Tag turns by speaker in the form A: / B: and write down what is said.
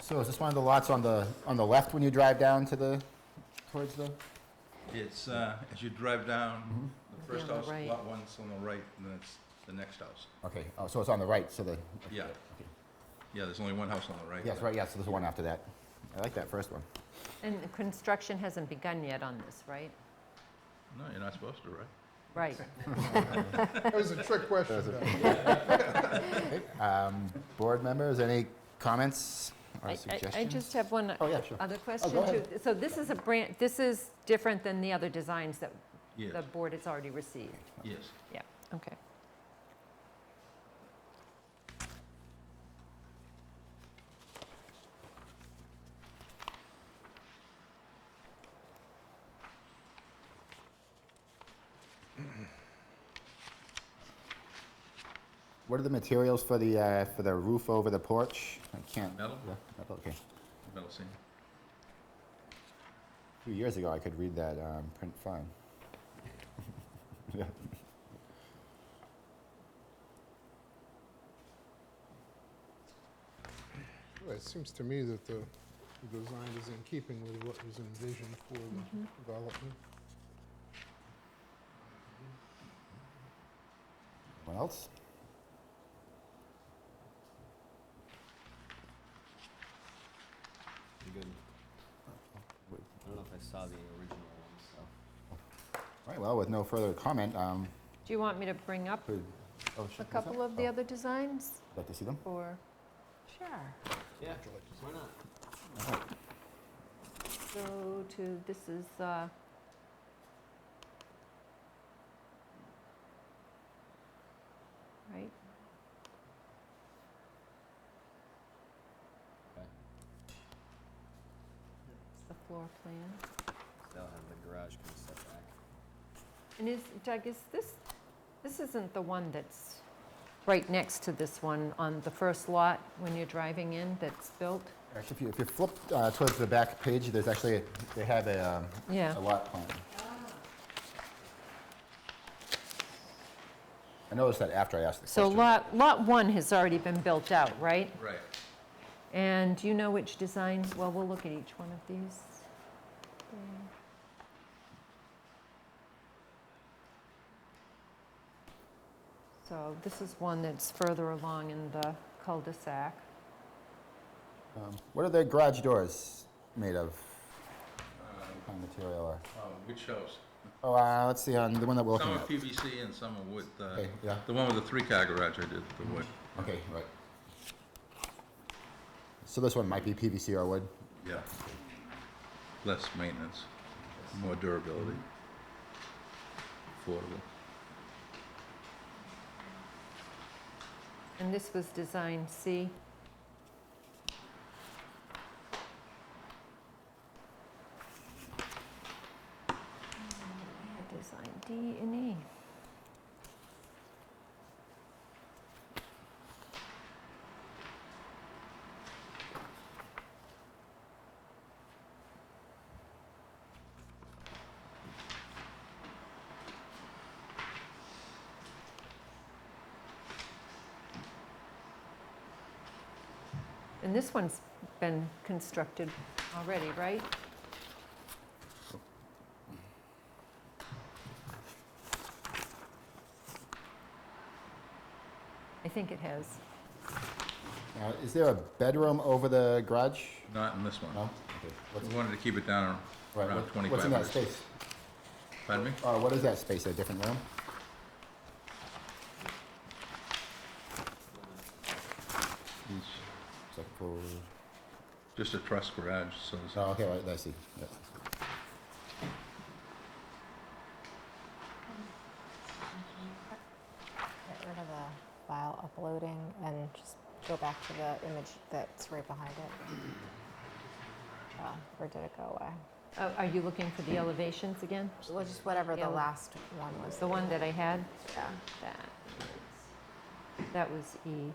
A: So is this one of the lots on the, on the left when you drive down to the, towards the?
B: It's, uh, as you drive
A: Mm-hmm.
B: down, the first
C: on the
B: house,
C: right.
B: lot one's on the right, and that's the next house.
A: Okay, oh, so it's on the right, so the,
B: Yeah. Yeah, there's only one house on the right.
A: yes, right, yes, so there's one after that. I like that first one.
C: And the construction hasn't begun yet on this, right?
B: No, you're not supposed to, right?
C: Right.
D: That was a trick question. though.
A: Um, Board members, any comments
C: I-
A: or
C: I-
A: suggestions?
C: I just have one
A: Oh, yeah, sure.
C: other question too.
A: ahead.
C: So this is a brand, this is different than the other designs that the
B: Yes,
C: board has already received?
B: yes.
C: Yeah, okay.
A: What are the materials for the, uh, for the roof over the porch? I can't.
B: Metal.
A: yeah, metal, Okay.
B: Metal seam.
A: A few years ago, I could read that um, print fine. Yeah.
D: Well, It seems to me that the the design is in keeping with what was envisioned for the development.
A: Anyone else?
E: Pretty good. I don't know if I saw the original one, so.
A: All right, well, with no further comment, um,
C: Do you want me to bring up
A: could. oh, sh-
C: a
A: what's that?
C: couple of the
A: Oh,
C: other designs,
A: Like to see them?
C: or? Sure.
E: Yeah, why not?
C: So to, this is, uh, right?
E: Okay.
C: It's the floor plan.
E: They'll have the garage kind of set back.
C: And is, Doug, is this, this isn't the one that's right next to this one on the first lot when you're driving in that's built?
A: Actually, if you, if you flip uh, towards the back page, there's actually, a- they have a, um,
C: Yeah.
A: a lot plan. I noticed that after I asked the
C: So
A: question.
C: lot, lot one has already been built out, right?
B: Right.
C: And do you know which designs, well, we'll look at each one of these. So this is one that's further along in the cul-de-sac.
A: Um, What are their garage doors made of? What kind of material or?
B: Uh, Which house?
A: Oh, uh, let's see, on the one that we're looking
B: Some
A: at.
B: are PVC and some are wood. uh,
A: Okay, yeah.
B: The one with the three-car garage I did, the wood.
A: Okay, right. So this one might be PVC or wood.
B: Yeah. Less maintenance, more durability. Affordable.
C: And this was design C. Design D and E. And this one's been constructed already, right? I think it has.
A: Uh, is there a bedroom over the garage?
B: Not in this one.
A: No? Okay. What's,
B: We wanted to keep it down
A: right,
B: around
A: what- what's
B: 25
A: in that
B: minutes.
A: space?
B: Pardon me?
A: Uh, what is that space, a different room? It's like for,
B: Just a truss garage, so there's
A: oh, okay, right, I see. Yeah.
F: Get rid of the file uploading and just go back to the image that's right behind it. Oh, Or did it go away?
C: Oh, Are you looking for the elevations again?
F: Well, just whatever
C: Yeah,
F: the
C: we-
F: last one was.
C: The one that I had?
F: Yeah.
C: That. That was E.